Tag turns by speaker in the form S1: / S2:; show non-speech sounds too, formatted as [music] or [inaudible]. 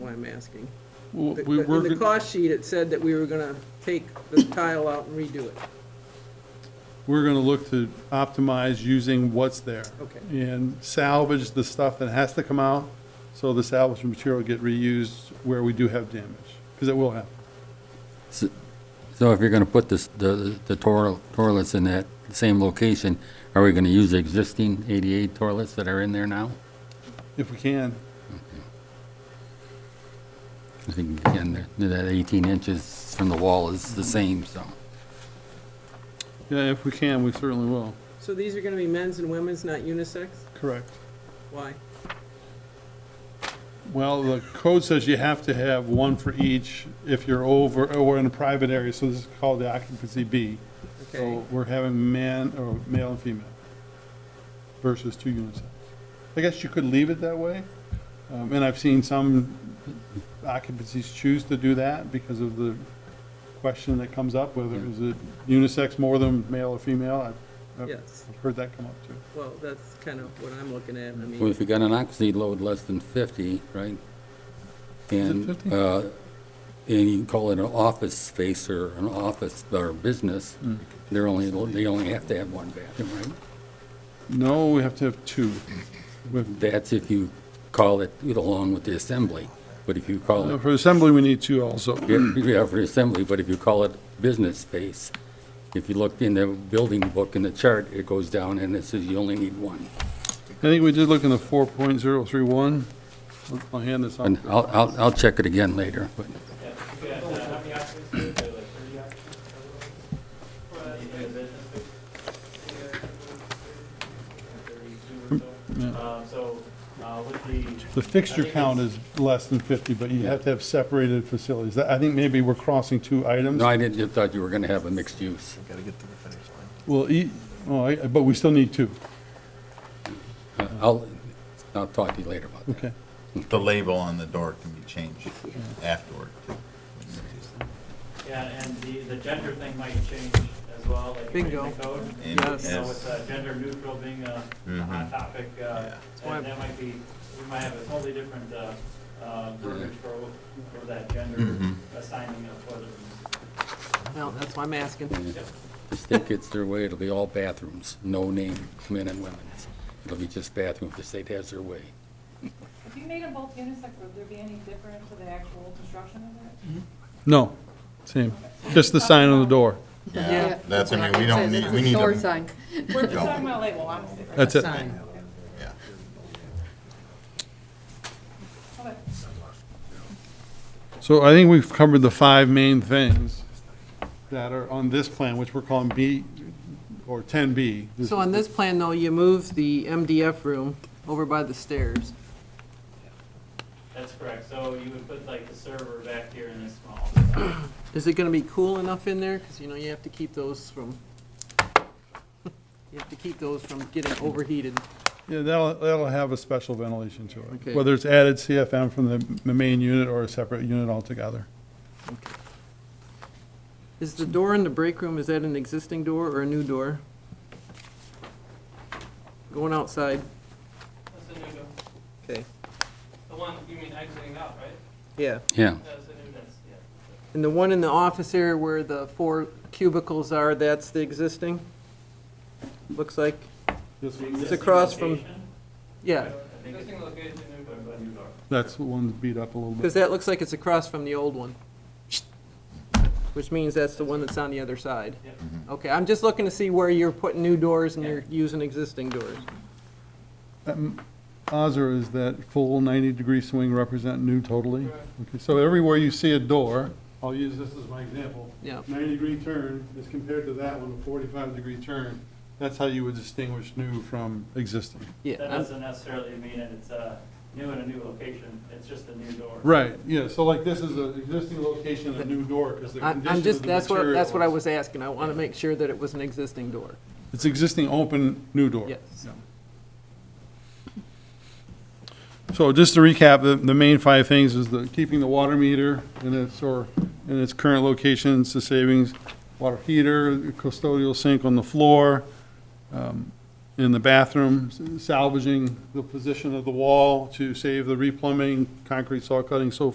S1: I'm asking.
S2: Well,
S1: The-
S2: we
S1: the-
S2: were
S1: In the
S2: gonna-
S1: cost sheet, it said that we were gonna take the tile out and redo it.
S2: we're gonna look to optimize using what's there.
S1: Okay.
S2: And salvage the stuff that has to come out, so the salvage material get reused where we do have damage, because it will happen.
S3: S- So if you're going to put this, the, the toil- toilets in that same location, are we going to use the existing 88 toilets that are in there now?
S2: If we can,
S3: I think, again, they're- they're that 18 inches from the wall is the same, so.
S2: yeah, if we can, we certainly will.
S1: So these are gonna be men's and women's, not unisex?
S2: Correct.
S1: Why?
S2: Well, the code says you have to have one for each if you're over, or in a private area, so this is called the occupancy B.
S1: Okay,
S2: So we're having man, or male and female versus two unisex. I guess you could leave it that way, um, and I've seen some occupancies choose to do that because of the question that comes up, whether is it unisex more than male or female? I've- I've
S1: yes,
S2: I've heard that come up too.
S1: well, that's kind of what I'm looking at, I
S3: Well,
S1: mean,
S3: if you got an occupancy load less than 50, right? and
S2: 50?
S3: uh, And you call it an office space or an office or business, they're only, they only have to have one bathroom, right?
S2: No, we have to have two. With-
S3: That's if you call it along with the assembly, but if you call
S2: uh,
S3: it,
S2: For assembly, we need two also.
S3: yeah, yeah, for the assembly, but if you call it business space, if you look in the building book in the chart, it goes down and it says you only need one.
S2: I think we did look in the four point zero three one. I'll hand this out.
S3: And I'll, I'll, I'll check it again later, but
S4: Um, So uh, with the
S2: The fixture count is less than 50, but you have to have separated facilities. I think maybe we're crossing two items.
S3: no, I didn't, just thought you were gonna have a mixed use.
S2: Well, e- oh, I- but we still need two.
S3: Uh, I'll, I'll talk to you later about that.
S2: Okay.
S5: The label on the door can be changed afterward. too.
S4: Yeah, and the, the gender thing might change as well, like in
S1: Bingo.
S4: the code.
S5: And-
S1: Yes.
S4: You know,
S5: yes.
S4: with uh, gender neutral being a a hot topic, uh,
S5: Yeah.
S1: why-
S4: and that might be, we might have a totally different uh, uh, verbiage for, for that gender
S5: Mm-hmm.
S4: assigning of toilet
S1: well, that's why I'm asking.
S3: The state gets their way, it'll be all bathrooms, no name, men and women. It'll be just bathroom if the state has their way.
S6: If you made them both unisex, would there be any difference to the actual construction of it?
S2: No, same. Just the sign on the door.
S5: Yeah, that's, I mean, we don't need, we need
S7: Door
S5: a,
S7: sign.
S6: We're just talking about label, honestly. right?
S2: That's it.
S5: yeah.
S6: Okay.
S2: So I think we've covered the five main things that are on this plan, which we're calling B or 10B.
S1: So on this plan, though, you move the MDF room over by the stairs.
S4: That's correct, so you would put like the server back here in this small.
S1: Is it gonna be cool enough in there? Because, you know, you have to keep those from, [laughs] you have to keep those from getting overheated.
S2: Yeah, that'll, that'll have a special ventilation to
S1: Okay.
S2: it, whether it's added CFM from the m- main unit or a separate unit altogether.
S1: Is the door in the break room, is that an existing door or a new door? Going outside.
S8: That's a new door.
S1: Okay.
S8: The one, you mean exiting out, right?
S1: Yeah.
S3: Yeah,
S8: That's a new, that's, yeah.
S1: And the one in the office area where the four cubicles are, that's the existing? Looks like, it's across from,
S4: Location,
S1: yeah,
S8: Existing location, new door.
S4: but new door.
S2: That's the one beat up a little bit.
S1: because that looks like it's across from the old one. Which means that's the one that's on the other side.
S4: Yep.
S1: Okay, I'm just looking to see where you're putting new doors and you're using existing doors.
S2: Azar, is that full 90-degree swing represent new totally? Okay, so everywhere you see a door, I'll use this as my example.
S1: Yeah.
S2: 90-degree turn is compared to that one, a 45-degree turn. That's how you would distinguish new from existing.
S1: Yeah,
S4: That
S1: I'm-
S4: doesn't necessarily mean that it's uh, new in a new location, it's just a new door.
S2: Right, yeah, so like this is an existing location, a new door, because the
S1: I'm
S2: condition
S1: I'm
S2: of
S1: just,
S2: the
S1: that's what, that's what I
S2: materials-
S1: was asking. I want to make sure that it was an existing door.
S2: It's existing open, new door.
S1: Yes.
S2: So just to recap, the, the main five things is the, keeping the water meter in its, or in its current locations, the savings, water heater, custodial sink on the floor, um, in the bathroom, salvaging the position of the wall to save the replumbing, concrete saw cutting, so